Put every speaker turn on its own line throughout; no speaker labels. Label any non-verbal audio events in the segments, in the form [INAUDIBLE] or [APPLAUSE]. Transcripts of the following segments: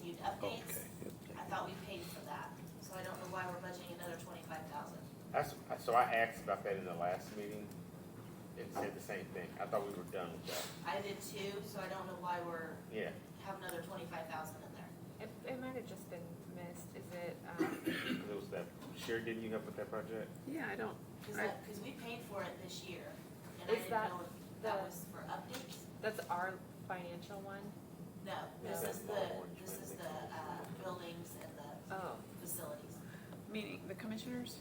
Okay.
maintenance.
yep.
I thought we paid for that, so I don't know why we're budgeting another twenty-five thousand.
That's, so I asked about that in the last meeting, and said the same thing, I thought we were done with that,
I did too, so I don't know why we're,
yeah.
have another twenty-five thousand in there.
It, it might have just been missed, is it,
[COUGHS]
um,
'cause It was that, Sherry, didn't you help with that project?
yeah, I don't,
Cause
Right.
that- 'cause we paid for it this year, and I
Is
didn't
that
know if that
the-
was for updates.
that's our financial one?
No, this
No.
is the, this is the, uh, buildings and the
Oh,
facilities.
Meaning the commissioners?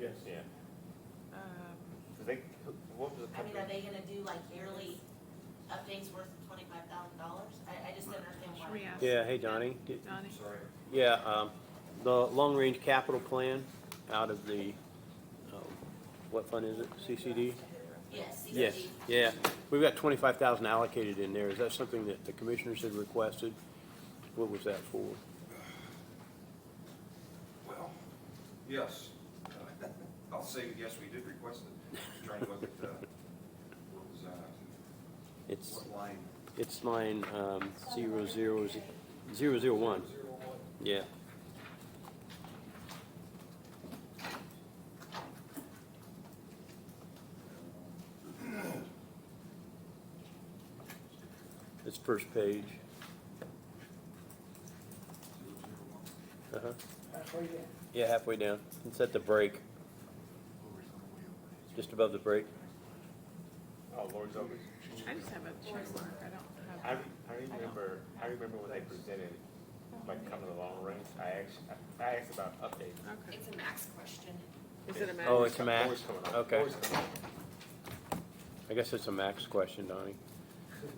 Yes. Yeah,
Um,
cause they, what was the
I mean, are
company?
they gonna do like yearly updates worth twenty-five thousand dollars? I, I just don't understand
Should we
why.
ask
Yeah, hey Donnie, D-
Donnie?
yeah, um, the long-range capital plan out of the, um, what fund is it, CCD?
Yes,
Yes,
CCD.
yeah, we've got twenty-five thousand allocated in there, is that something that the commissioners had requested? What was that for?
Well, yes. [LAUGHS] I'll say, yes, we did request it. I'm Trying to look at, uh, what was, uh,
It's,
what line?
it's line, um, zero zero, z- zero zero one,
Zero one.
yeah. It's first page,
Zero zero one.
uh-huh. Yeah, halfway down, it's at the break, just above the break.
Oh, Lord's Over.
I just have a check mark, I don't
I,
have.
re- I remember, I remember when they presented, like, coming along range, I asked, I I asked about updates.
Okay.
a max question.
Is it a matter?
Oh, it's a
Always
max,
coming up,
Okay.
always coming up.
I guess it's a max question, Donnie.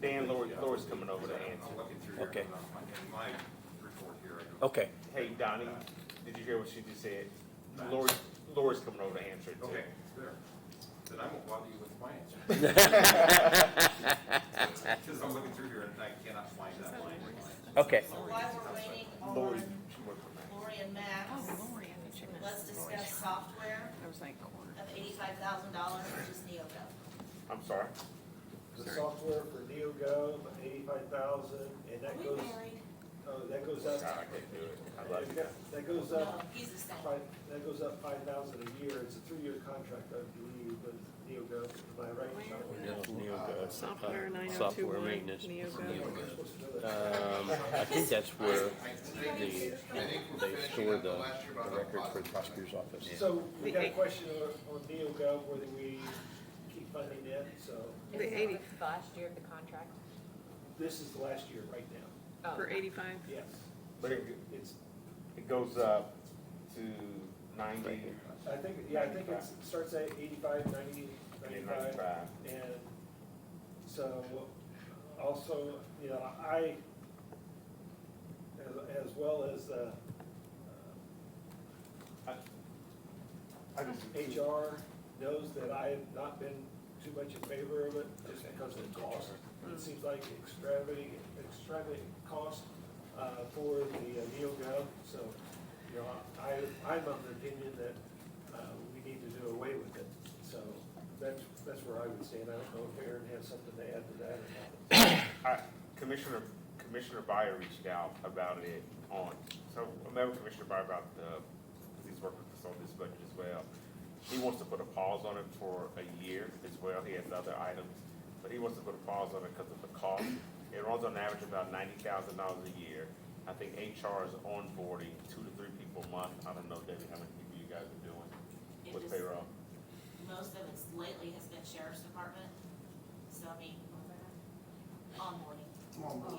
Dan, Lord, Lord's coming over to
I'm
answer.
looking through here.
Okay.
In my report here, I don't.
Okay,
Hey, Donnie, did you hear what she just said? Lord, Lord's coming over to answer it too.
Okay, there. Then I won't bother you with my answer. [LAUGHS]
[LAUGHS]
Because I'm looking through here and I cannot find that line.
okay.
So while we're waiting on
Lori,
Lori
she worked on that.
and
Oh,
Max,
Lori, I thought you meant.
let's discuss software
I was like, quarter.
of eighty-five thousand dollars, which is NeoGov.
I'm sorry.
The software for NeoGov, eighty-five thousand, and that
We
goes,
married?
uh, that goes
God, I
up,
can't do it. I love you.
that goes
No,
up,
he's the same.
five, that goes up five thousand a year, it's a three-year contract, I believe, with NeoGov, am I right?
Software nine oh two
Software
one,
maintenance.
NeoGov.
We're supposed to do that.
Um, I think that's where the, they store the the records for the prosecutor's office.
So, we got a
The-
question on, on NeoGov, whether we keep funding it, so,
is
The
it
80.
the last year of the contract?
this is the last year right now,
Oh,
For eighty-five,
yes.
But it,
It's,
it goes up to ninety
I think, yeah, I think it's, it starts at eighty-five, ninety,
and
ninety-five.
ninety-five.
And so also, you know, I, as, as well as, uh,
I just-
HR knows that I have not been too much in favor of it just because of the cost. It seems like extravagant, extravagant cost, uh, for the uh, NeoGov. So, you know, I, I'm of the opinion that, uh, we need to do away with it. So that's, that's where I would stand. I don't know if Aaron has something to add to that or not.
I- Commissioner, Commissioner Byer reached out about it on, so I remember Commissioner Byer about the, 'cause he's working with us on this budget as well. He wants to put a pause on it for a year as well. He has other items, but he wants to put a pause on it because of the cost. It runs on average about ninety thousand dollars a year. I think HR is onboarding two to three people a month. I don't know, Debbie, how many people you guys are doing
It
with
just-
payroll?
Most of it's lately has been sheriff's department, so I mean, onboarding.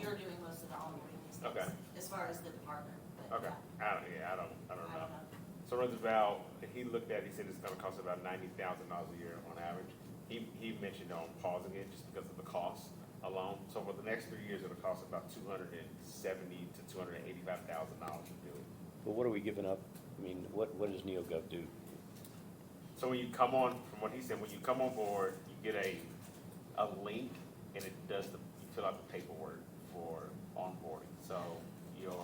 You're doing most of the onboarding these days.
Okay.
As far as the department, but
Okay,
yeah,
I don't, yeah, I don't, I
I
don't know.
don't know.
So Roosevelt, he looked at, it, he said it's gonna cost about ninety thousand dollars a year on average. He, he mentioned on pausing it just because of the cost alone. So for the next three years, it'll cost about two hundred and seventy to two hundred and eighty-five thousand dollars to do it.
But what are we giving up? I mean, what, what does NeoGov do?
So when you come on, from what he said, when you come on board, you get a, a link and it does the, you fill out the paperwork for onboarding. So your,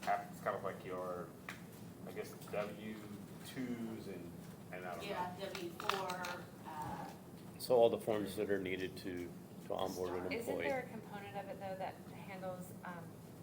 it's kind of like your, I guess, W twos and, and I don't know.
Yeah, W four, uh,
So all the forms that are needed to, to onboard an
Isn't
employee.
there a component of it though that handles, um,